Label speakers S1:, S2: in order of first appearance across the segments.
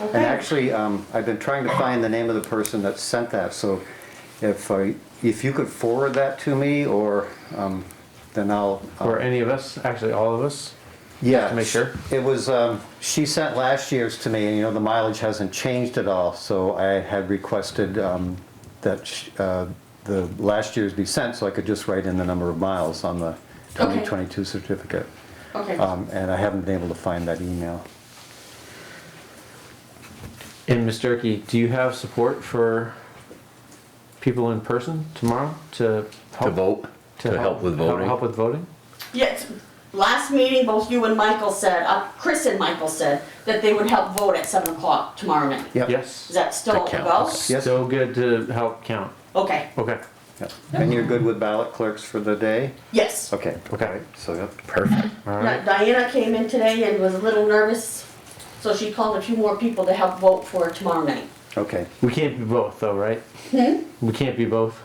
S1: And
S2: Okay.
S1: actually, um, I've been trying to find the name of the person that sent that, so if, uh, if you could forward that to me, or, um, then I'll. I'll-
S3: Or any of us, actually all of us.
S1: Yeah.
S3: to make sure?
S1: It was, um, she sent last year's to me, and you know, the mileage hasn't changed at all, so I had requested, um, that, sh- uh, the last year's be sent, so I could just write in the number of miles on the
S2: Okay.
S1: twenty twenty-two certificate.
S2: Okay.
S1: Um, and I haven't been able to find that email.
S3: And Ms. Durkee, do you have support for people in person tomorrow to help?
S4: To vote, to help with voting.
S3: Help with voting?
S2: Yes, last meeting, both you and Michael said, uh, Chris and Michael said, that they would help vote at seven o'clock tomorrow night.
S1: Yep.
S2: Is
S3: Yes.
S2: that still
S4: That
S2: about?
S4: counts.
S1: Yes.
S3: So good to help count.
S2: Okay,
S3: Okay,
S1: Yep. And you're good with ballot clerks for the day?
S2: yes.
S1: Okay,
S3: okay,
S1: so, yep.
S4: Perfect.
S3: all
S2: Now,
S3: right.
S2: Diana came in today and was a little nervous, so she called a few more people to help vote for tomorrow night.
S1: okay.
S3: We can't be both though, right?
S2: Hmm?
S3: We can't be both.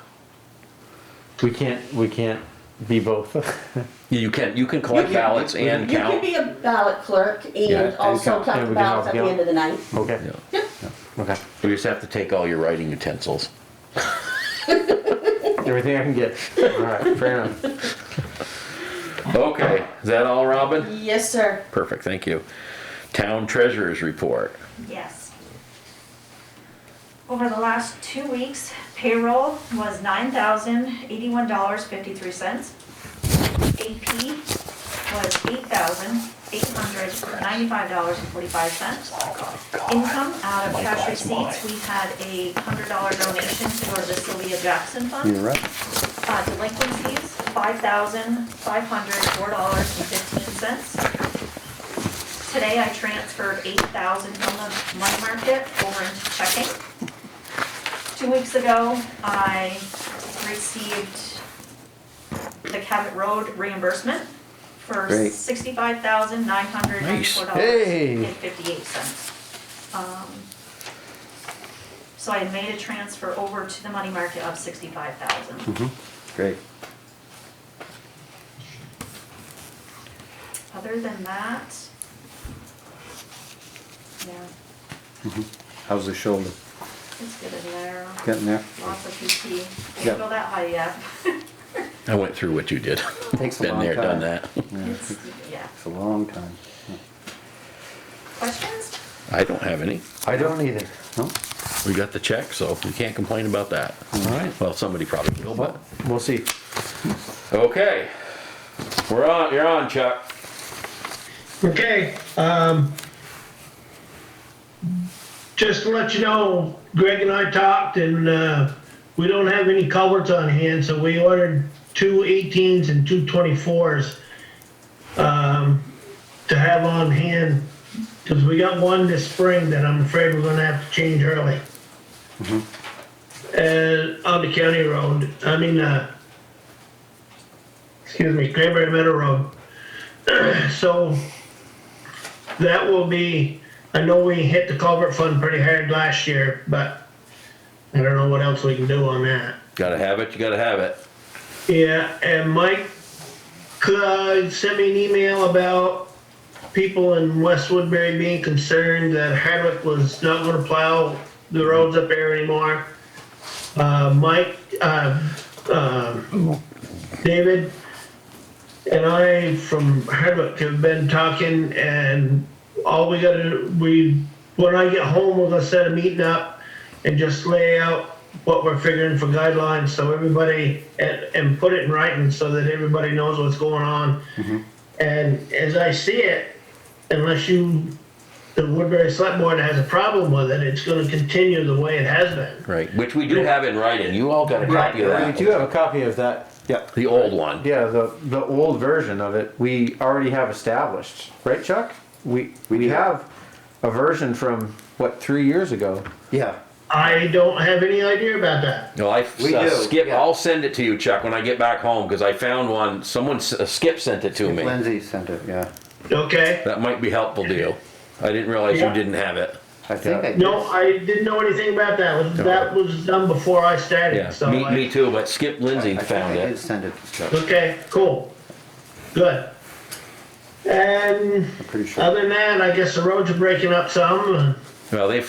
S3: We can't, we can't be both.
S4: You can, you can collect
S2: You can-
S4: ballots and
S2: You can
S4: count.
S2: be a ballot clerk
S4: Yeah, and
S2: and also
S1: count.
S2: count
S3: And
S2: the
S3: we can help
S2: ballots at the
S3: count.
S2: end of the night.
S3: Okay,
S4: Yeah.
S3: okay.
S4: You just have to take all your writing utensils.
S3: Everything I can get. All right, fair enough.
S4: Okay, is that all, Robin?
S2: Yes, sir.
S4: Perfect, thank you. Town treasurer's report.
S5: Yes. Over the last two weeks, payroll was nine thousand eighty-one dollars fifty-three cents. AP was eight thousand eight hundred ninety-five dollars and forty-five cents. Income out of cash receipts, we had a hundred dollar donation for the Sylvia Jackson
S1: You're
S5: Fund.
S1: right.
S5: Uh, delinquencies, five thousand five hundred four dollars and fifteen cents. Today I transferred eight thousand from the money market over into checking. Two weeks ago, I received the Cabot Road reimbursement for
S1: Great.
S5: sixty-five thousand nine hundred ninety-four dollars
S3: Hey.
S5: and fifty-eight cents. Um, So I made a transfer over to the money market of sixty-five
S1: Mm-hmm.
S5: thousand.
S1: Great.
S5: Other than that, yeah,
S1: How's the shoulder?
S5: it's good in there.
S1: Getting there?
S5: Lots of
S1: Yeah.
S5: PT. Didn't go that high yet.
S4: I went through what you did.
S1: Takes a
S4: Been
S1: long
S4: there,
S1: time.
S4: done that.
S5: It's- Yeah.
S1: It's a long time.
S5: Questions?
S4: I don't have any.
S3: I don't either.
S1: No?
S4: We got the check, so we can't complain about that.
S3: All right,
S4: Well, somebody probably will, but.
S3: we'll see.
S4: Okay. We're on, you're on, Chuck.
S6: Okay, um, just to let you know, Greg and I talked and, uh, we don't have any culverts on hand, so we ordered two 18s and two 24s, um, to have on hand, cause we got one this spring that I'm afraid we're gonna have to change early. And on the county road, I mean, uh, excuse me, Cranberry Meadow Road. So that will be, I know we hit the culvert fund pretty hard last year, but I don't know what else we can do on that.
S4: Gotta have it, you gotta have it.
S6: Yeah, and Mike could send me an email about people in West Woodbury being concerned that Hardwick was not gonna plow the roads up there anymore. Uh, Mike, uh, um David and I from Hardwick have been talking and all we gotta, do we, when I get home, we're gonna set a meeting up and just lay out what we're figuring for guidelines, so everybody, and, and put it in writing so that everybody knows what's going on. And as I see it, unless you, the Woodbury Select Board has a problem with it, it's gonna continue the way it has been.
S4: Right, which we do have in writing. You all got a copy of
S3: We
S4: that.
S3: do have a copy of that.
S1: Yep.
S4: The old one.
S3: Yeah, the, the old version of it, we already have established, right Chuck? We, we
S1: do.
S3: have a version from, what, three years ago?
S1: Yeah.
S6: I don't have any idea about that.
S4: No, I
S1: We do,
S4: uh, skip.
S1: yeah.
S4: I'll send it to you, Chuck, when I get back home because I found one. Someone s- uh, skip sent it to me.
S1: Lindsay sent it, yeah.
S6: Okay?
S4: That might be helpful to you. I didn't realize
S6: Yeah.
S4: you didn't have it.
S1: I think I
S6: No, I didn't know anything about that. Was- That was done before I
S4: Yeah,
S6: started, so.
S4: me,
S6: I-
S4: me too. But Skip Lindsay
S1: I think
S4: found
S1: I did
S4: it.
S1: send it to Chuck.
S6: Okay, cool. Good. And
S1: I'm pretty sure.
S6: other than that, I guess the roads are breaking up some.
S4: Well, they